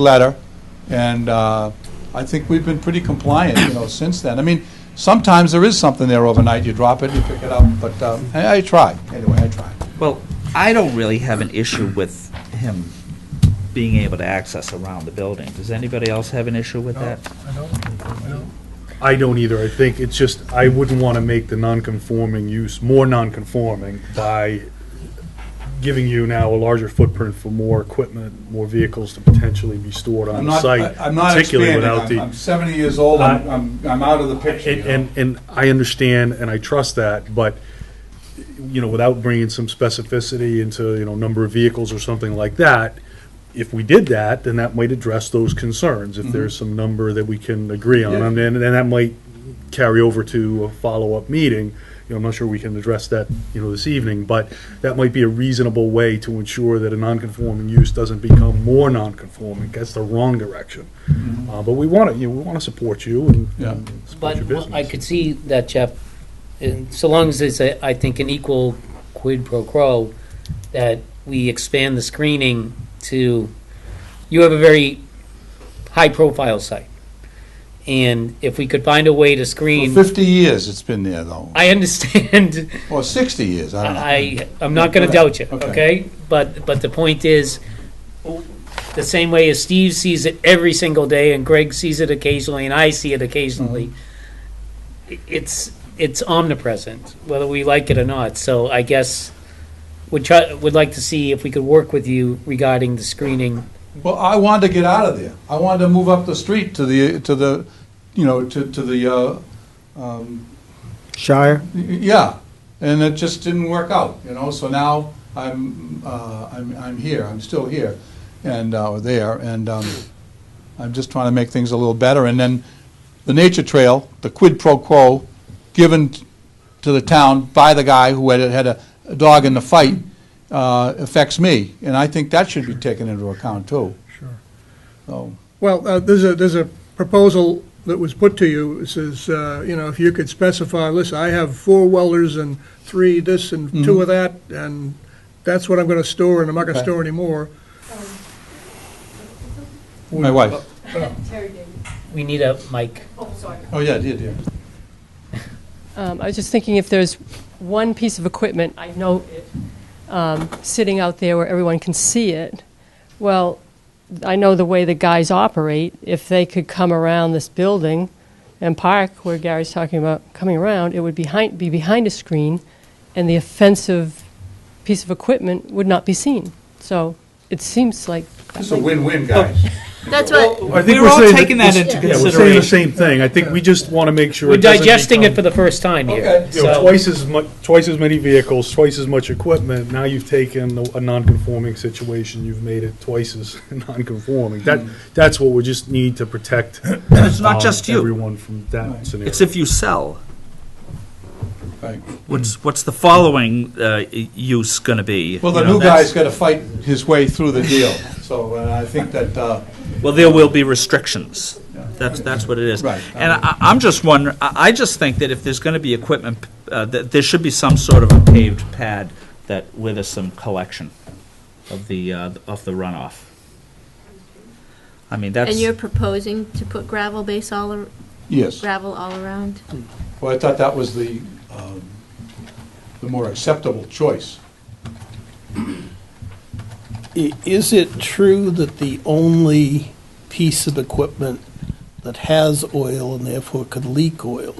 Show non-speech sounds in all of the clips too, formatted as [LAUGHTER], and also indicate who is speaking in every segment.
Speaker 1: letter, and uh, I think we've been pretty compliant, you know, since then. I mean, sometimes there is something there overnight, you drop it, you pick it up, but um, I I try, anyway, I try.
Speaker 2: Well, I don't really have an issue with him being able to access around the building. Does anybody else have an issue with that?
Speaker 3: I don't either. I think it's just, I wouldn't want to make the non-conforming use more non-conforming by giving you now a larger footprint for more equipment, more vehicles to potentially be stored
Speaker 1: I'm
Speaker 3: on the
Speaker 1: not,
Speaker 3: site,
Speaker 1: I- I'm not
Speaker 3: particularly
Speaker 1: expanding,
Speaker 3: without
Speaker 1: I'm I'm
Speaker 3: the.
Speaker 1: 70 years old, I'm, I'm- I'm out of the picture. you
Speaker 3: And,
Speaker 1: know.
Speaker 3: and, and I understand and I trust that, but, you know, without bringing some specificity into, you know, number of vehicles or something like that, if we did that, then that might address those concerns, if there's some number that we can agree on.
Speaker 1: Mm-hmm. Yeah.
Speaker 3: And then, and that might carry over to a follow-up meeting. You know, I'm not sure we can address that, you know, this evening, but that might be a reasonable way to ensure that a non-conforming use doesn't become more non-conforming, that's the wrong direction. Uh, but we want to, you know, we want to support you and
Speaker 1: Mm-hmm. Yeah.
Speaker 3: and support your
Speaker 4: But I
Speaker 3: business.
Speaker 4: could see that, Jeff, and so long as it's, a- I think, an equal quid pro quo, that we expand the screening to, you have a very high-profile site. And if we could find a way to
Speaker 1: For
Speaker 4: screen,
Speaker 1: 50 years it's been there, though,
Speaker 4: I understand,
Speaker 1: or 60 years, I don't know.
Speaker 4: I, I'm not gonna doubt you,
Speaker 1: Okay.
Speaker 4: okay? But, but the point is, the same way as Steve sees it every single day, and Greg sees it occasionally, and I see it occasionally,
Speaker 1: Mm-hmm.
Speaker 4: i- it's, it's omnipresent, whether we like it or not, so I guess, would try, would like to see if we could work with you regarding the screening.
Speaker 1: Well, I wanted to get out of there. I wanted to move up the street to the, to the, you know, to, to the, uh, um,
Speaker 5: Shire?
Speaker 1: y- yeah, and it just didn't work out, you know, so now I'm, uh, I'm, I'm here, I'm still here, and, uh, or there, and, um, I'm just trying to make things a little better, and then the nature trail, the quid pro quo, given t- to the town by the guy who had, had a a dog in the fight, uh, affects me, and I think that should be taken into account, too.
Speaker 6: Sure.
Speaker 1: So,
Speaker 6: Well, uh, there's a, there's a proposal that was put to you, it says, uh, you know, if you could specify, listen, I have four welders and three this and two of that, and that's what I'm gonna store, and I'm not gonna
Speaker 1: Okay.
Speaker 6: store anymore.
Speaker 1: my wife.
Speaker 7: Terry Davis.
Speaker 4: We need a mic.
Speaker 7: Oh, sorry.
Speaker 1: Oh, yeah, yeah, yeah.
Speaker 7: Um, I was just thinking if there's one piece of equipment, I know it, um, sitting out there where everyone can see it, well, I know the way the guys operate, if they could come around this building and park where Gary's talking about coming around, it would behind, be behind a screen, and the offensive piece of equipment would not be seen. So it seems like. that
Speaker 1: It's
Speaker 7: might
Speaker 1: a
Speaker 7: be-
Speaker 1: win-win, guys.
Speaker 8: That's what,
Speaker 3: I think
Speaker 2: We're all taking that into
Speaker 3: Yeah, we're saying the same thing. I think we just want to make sure.
Speaker 4: We're
Speaker 3: it doesn't
Speaker 4: digesting it for
Speaker 3: become-
Speaker 4: the first time
Speaker 1: Okay.
Speaker 4: here,
Speaker 3: You know,
Speaker 4: so-
Speaker 3: twice as mu, twice as many vehicles, twice as much equipment. Now you've taken a- a non-conforming situation, you've made it twice as [LAUGHS] non-conforming. That, that's what we just need to protect.
Speaker 2: It's not
Speaker 3: um,
Speaker 2: just you.
Speaker 3: Everyone from that scenario.
Speaker 2: It's if you sell.
Speaker 1: [LAUGHS] Right.
Speaker 2: What's, what's the following uh, use going to be?
Speaker 1: Well,
Speaker 2: You
Speaker 1: the
Speaker 2: know,
Speaker 1: new
Speaker 2: that's-
Speaker 1: guy's got to fight his way through the deal, so uh, I think that, uh,
Speaker 2: Well, there will be restrictions. That's, that's what it is.
Speaker 1: Right.
Speaker 2: And I, I'm just wondering, I, I just think that if there's gonna be equipment, uh, that there should be some sort of a paved pad that, where there's some collection of the, uh, of the runoff. I mean, that's,
Speaker 8: and you're proposing to put gravel base all, ar-
Speaker 1: yes.
Speaker 8: gravel all around?
Speaker 1: Well, I thought that was the, um, the more acceptable choice.
Speaker 9: I- Is it true that the only piece of equipment that has oil and therefore could leak oil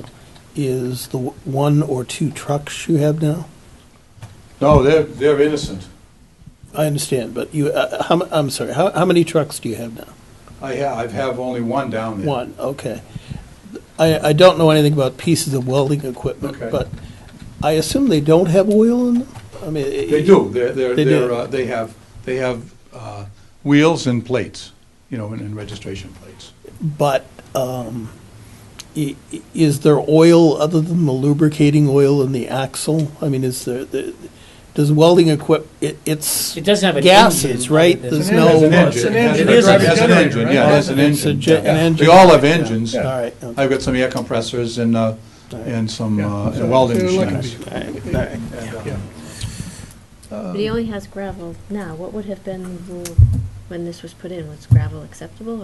Speaker 9: is the w- one or two trucks you have now?
Speaker 1: No, they're, they're innocent.
Speaker 9: I understand, but you, uh, how, m- I'm sorry, how, how many trucks do you have now?
Speaker 1: I have, I have only one down there.
Speaker 9: One, okay. I, I don't know anything about pieces of welding equipment,
Speaker 1: Okay.
Speaker 9: but I assume they don't have oil in them? I mean. i-
Speaker 1: They do, they're, they're,
Speaker 9: They
Speaker 1: they're,
Speaker 9: do.
Speaker 1: uh, they have, they have uh, wheels and plates, you know, and- and registration plates.
Speaker 9: But um, i- i- is there oil other than the lubricating oil in the axle? I mean, is there, the- does welding equip, it- it's
Speaker 4: It doesn't have an
Speaker 9: gases,
Speaker 4: engine
Speaker 9: right?
Speaker 4: other than-
Speaker 9: There's
Speaker 1: It has
Speaker 9: no.
Speaker 1: an engine.
Speaker 6: engine.
Speaker 1: It
Speaker 2: It is a
Speaker 1: has an
Speaker 6: generator,
Speaker 1: engine,
Speaker 6: right?
Speaker 1: yeah, it has an
Speaker 9: It's a
Speaker 1: engine.
Speaker 9: gen- an
Speaker 1: Yeah.
Speaker 9: engine.
Speaker 1: They all have engines.
Speaker 9: All right, okay.
Speaker 1: I've got some air compressors and, uh, and some uh, and
Speaker 6: So
Speaker 1: welding
Speaker 6: they're looking
Speaker 1: machines.
Speaker 6: for-
Speaker 9: All right, all right.
Speaker 8: But he only has gravel now, what would have been the rule when this was put in, was gravel acceptable